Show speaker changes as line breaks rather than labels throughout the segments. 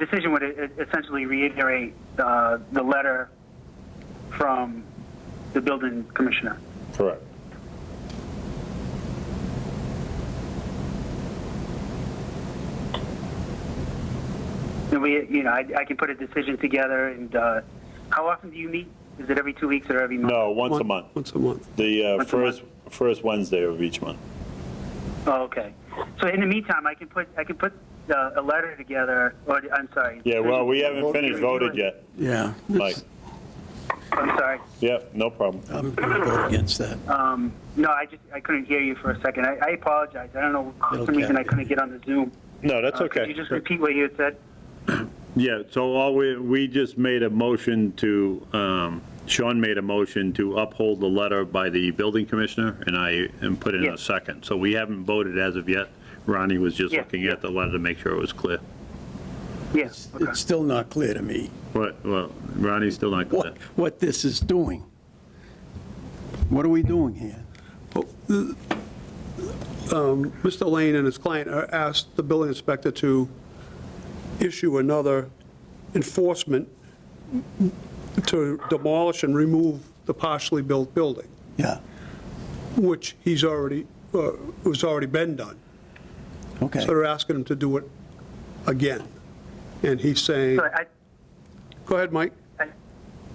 decision would e- essentially reiterate uh, the letter from the building commissioner.
Correct.
And we, you know, I, I can put a decision together and, uh, how often do you meet? Is it every two weeks or every month?
No, once a month.
Once a month.
The uh,
Once a month.
first, first Wednesday of each month.
Oh, okay. So in the meantime, I can put, I can put uh, a letter together, or, I'm sorry.
Yeah, well, we haven't finished voted yet,
Yeah.
Mike.
I'm sorry.
Yep, no problem.
I'm going to vote against that.
Um, no, I just, I couldn't hear you for a second. I, I apologize. I don't know, for some
Okay.
reason I couldn't get on the Zoom.
No, that's
Uh, Could you
okay.
just repeat what you had said?
Yeah, so all we, we just made a motion to, um, Sean made a motion to uphold the letter by the building commissioner, and I, and put in
Yeah.
a second. So we haven't voted as of yet. Ronnie was just
Yeah,
looking at the letter to make sure it was clear.
Yes. Okay.
It's still not clear to me
But, well, Ronnie's still not clear.
what, what this is doing. What are we doing here?
Mr. Lane and his client are- asked the building inspector to issue another enforcement to demolish and remove the partially built building,
Yeah,
which he's already, uh, was already been done.
okay.
So they're asking him to do it again. And he's saying,
So I,
go ahead, Mike.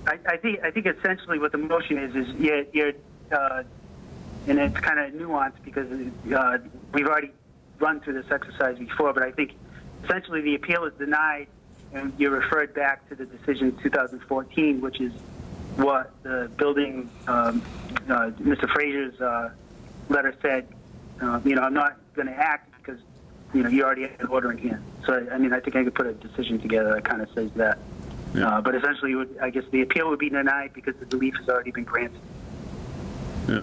I, I think I think essentially what the motion is is you're, you're uh, and it's kind of nuanced because uh, we've already run through this exercise before, but I think essentially the appeal is denied and you're referred back to the decision 2014, which is what the building um, uh, Mr. Frazier's uh, letter said. Uh, you know, I'm not going to act because you know you already had an order in hand. So I mean, I think I could put a decision together that kind of says that. Uh, But essentially, it would- I guess the appeal would be denied because the relief has already been granted.
Yeah.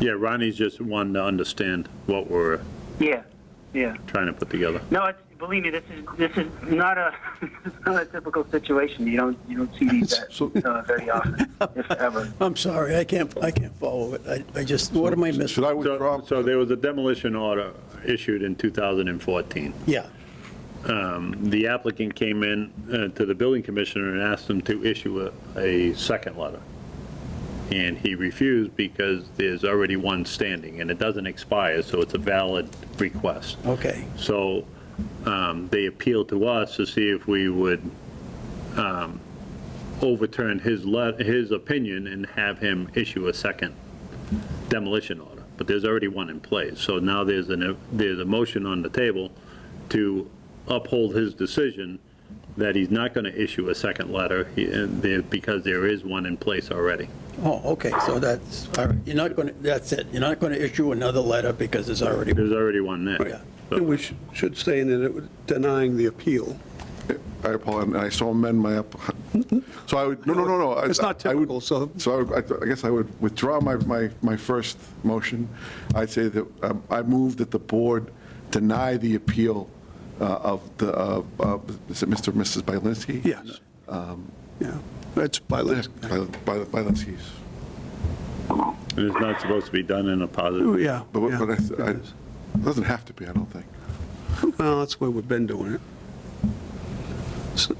Yeah, Ronnie's just wanting to understand what we're
Yeah, yeah.
trying to put together.
No, it's, believe me, this is, this is not a, it's not a typical situation. You don't, you don't see these
So-
that, uh, very often, if ever.
I'm sorry, I can't, I can't follow it. I, I just, what am I
Should
missing?
I
So
withdraw?
so there was a demolition order issued in 2014.
Yeah,
The applicant came in uh, to the building commissioner and asked him to issue a, a second letter. And he refused because there's already one standing and it doesn't expire, so it's a valid request.
okay.
So um, they appealed to us to see if we would um, overturn his, let- his opinion and have him issue a second demolition order. But there's already one in place, so now there's an, there's a motion on the table to uphold his decision that he's not going to issue a second letter he- and there- because there is one in place already.
Oh, okay, so that's, all right, you're not going to, that's it. You're not going to issue another letter because it's already,
There's already one
Yeah.
there. So-
And we sh- should say that it was denying the appeal.
I apologize, and I so amend my, app- so I would, no, no, no, no. I-
It's not
I would-
typical, so-
So I would- I I guess I would withdraw my, my, my first motion. I'd say that um, I move that the board deny the appeal uh, of the, uh, uh, is it Mr. and Mrs. Bylinski?
Yes.
Um,
Yeah, that's by,
Yeah,
let's-
By- by- Bylinski's.
And it's not supposed to be done in a positive.
Ooh, yeah.
But, what-
yeah,
but
it
I- I,
is.
it doesn't have to be, I don't think.
Well, that's where we've been doing it. So-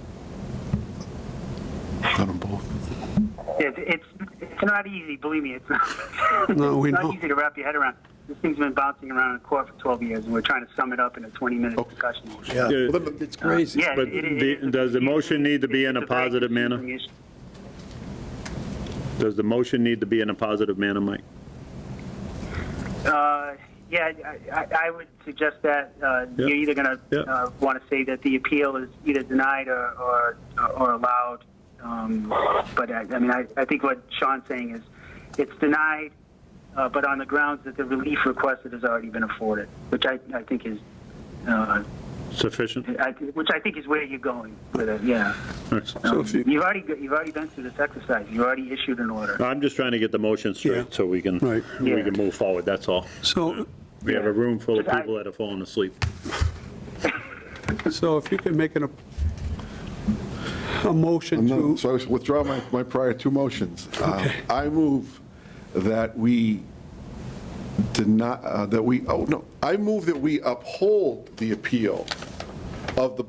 Done them both.
It, it's, it's not easy, believe me, it's not.
No, we
It's
know.
not easy to wrap your head around. This thing's been bouncing around in court for 12 years, and we're trying to sum it up in a 20-minute
Okay.
discussion.
yeah,
Well,
then-
it's crazy.
Yeah,
But
it- it-
the-
it is a-
does the motion need to be in a
it's very
positive manner?
confusing issue.
Does the motion need to be in a positive manner, Mike?
Uh, Yeah, I- I I would suggest that uh, you're either going
Yep.
to want to say that the appeal is either denied or or or allowed. Um, But I I mean, I I think what Sean's saying is, it's denied, uh, but on the grounds that the relief requested has already been afforded, which I I think is, uh,
Sufficient?
I thi- which I think is where you're going with it, yeah.
Excellent.
So
Um,
if you-
You've already, go- you've already been through this exercise, you've already issued an order.
I'm just trying to get the motion straight
Yeah.
so we can,
Right.
we
Yeah.
can move forward, that's all.
So,
We have a room full of
Just I-
people that have fallen asleep.
so if you can make an, a motion
No,
to,
So I was- withdraw my, my prior two motions. Uh, I move that we did not, uh, that we, oh, no, I move that we uphold the appeal of the